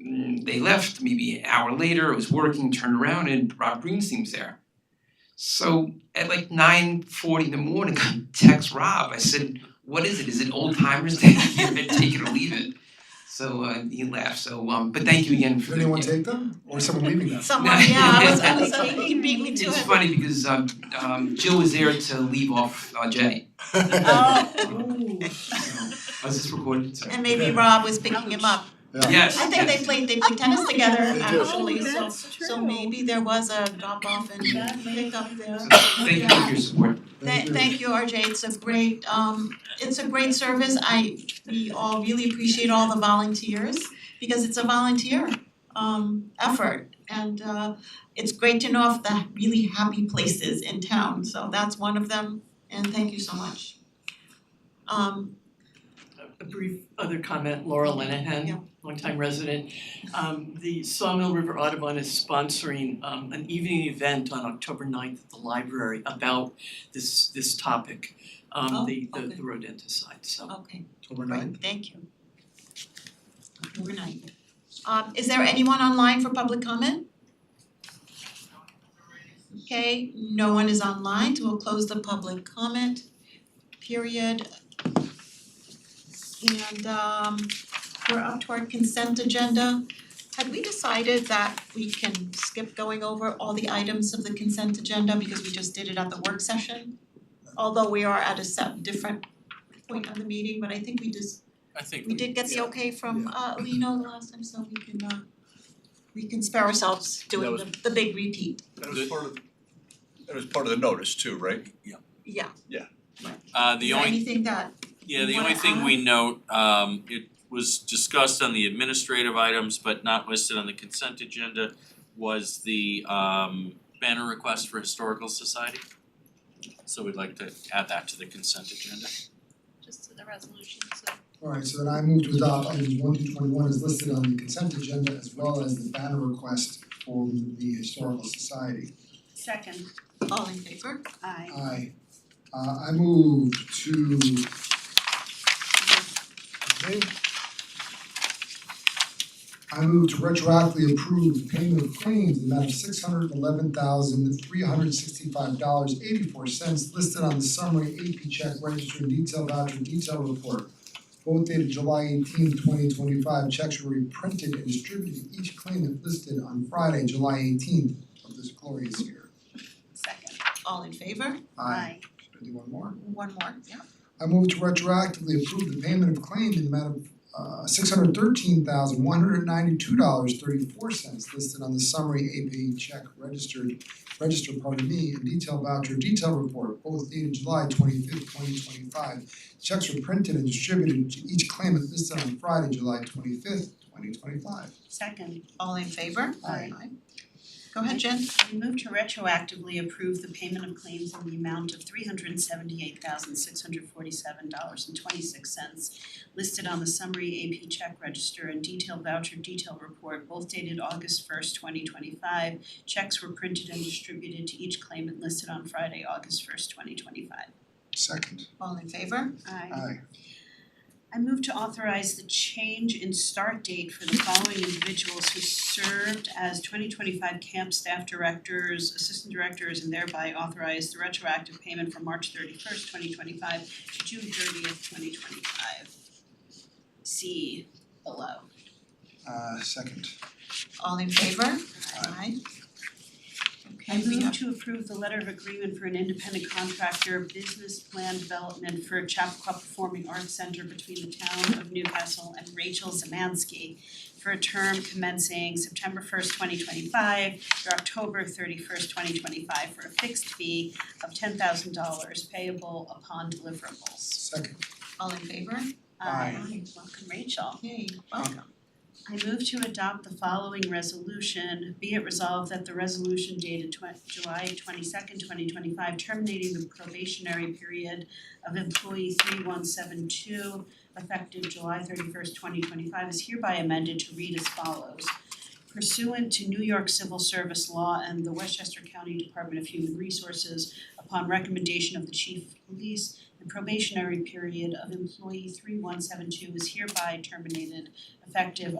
mm, they left maybe an hour later, it was working, turned around and Rob Greenstein's there. So at like nine forty in the morning, I text Rob, I said, what is it, is it old timers day, you can take it or leave it? So uh he laughed, so um but thank you again for Did the. anyone take them or is someone leaving them? Someone, yeah, I was I I was like, he beat me to it. It's funny because um um Jill was there to leave off uh Jay, Oh, so I was just recording, sorry. and maybe Rob was picking him up. Yes, I think they played, they played tennis together They did. actually, so Oh, that's true. so maybe there was a drop off and That may pick up there. So thank you for your support. Tha- thank you, RJ, it's a great um it's a great service, I we all really appreciate all the volunteers because it's a volunteer um effort and uh it's great to know of the really happy places in town, so that's one of them and thank you so much. Um a brief other comment, Laura Yeah. Lenahan, longtime resident. Um the Sawmill River Audubon is sponsoring um an evening event on October 9th at the library about this this topic. Oh, Um the the okay. Oh. the rodenticide, so. okay. October ninth, Right, thank you. October ninth. Um is there anyone online for public comment? Okay, no one is online, so we'll close the public comment period. And um we're up to our consent agenda. Had we decided that we can skip going over all the items of the consent agenda because we just did it at the work session? Although we are at a set different point of the meeting, but I think we just I think we did get the okay from uh Lino the last time, so we can uh we can spare ourselves doing the the big repeat, That was part of, that was part of the notice too, right? yeah. Uh the Is there only, anything that, yeah, the you only wanna thing we note, um it was discussed on the administrative items but not listed on the consent agenda was the um banner request for historical society. So we'd like to add that to the consent agenda. just to the resolution, so. alright, so then I moved to adopt items one through twenty one is listed on the consent agenda as well as the banner request for the historical society. Second, all in favor? aye. I uh I move to okay. I move to retroactively approve payment of claims in the amount of six hundred eleven thousand three hundred sixty five dollars eighty four cents listed on the summary AP check register and detail voucher detail report. Both dated July 18, 2025. checks were reprinted and distributed to each claimant listed on Friday, July eighteenth of this glorious year. Second, All in favor? Aye. Should I do one more? One more, yeah. I move to retroactively approve the payment of claim in the amount of uh six hundred thirteen thousand one hundred ninety-two dollars thirty-four cents listed on the summary AP check registered register, pardon me, and detail voucher detail report, both dated July twenty-fifth, twenty twenty-five. Checks were printed and distributed to each claimant listed on Friday, July twenty-fifth, twenty twenty-five. second, All in favor? Aye. Go ahead, Jen. we move to retroactively approve the payment of claims in the amount of three hundred and seventy-eight thousand six hundred forty-seven dollars and twenty-six cents listed on the summary AP check register and detailed voucher detail report, both dated August first, twenty twenty-five. Checks were printed and distributed to each claimant listed on Friday, August first, twenty twenty-five. Second. All in favor? Aye. I move to authorize the change in start date for the following individuals who served as twenty twenty five camp staff directors, assistant directors, and thereby authorize the retroactive payment from March thirty first, twenty twenty five to June thirtieth, twenty twenty five. See below. Uh second. All in favor? Aye. I Okay, we move have, to approve the letter of agreement for an independent contractor business plan development for Chappaqua Performing Arts Center between the town of Newcastle and Rachel Zemansky for a term commencing September first, twenty twenty-five through October thirty-first, twenty twenty-five for a fixed fee of ten thousand dollars payable upon deliverables. Second. all in favor? Aye. Aye. welcome Rachel. Okay, welcome. I move to adopt the following resolution, be it resolved that the resolution dated twen- July twenty second, twenty twenty five, terminating the probationary period of employee three one seven two effective July thirty first, twenty twenty five is hereby amended to read as follows. Pursuant to New York Civil Service Law and the Westchester County Department of Human Resources, upon recommendation of the Chief of Police, the probationary period of employee three one seven two is hereby terminated effective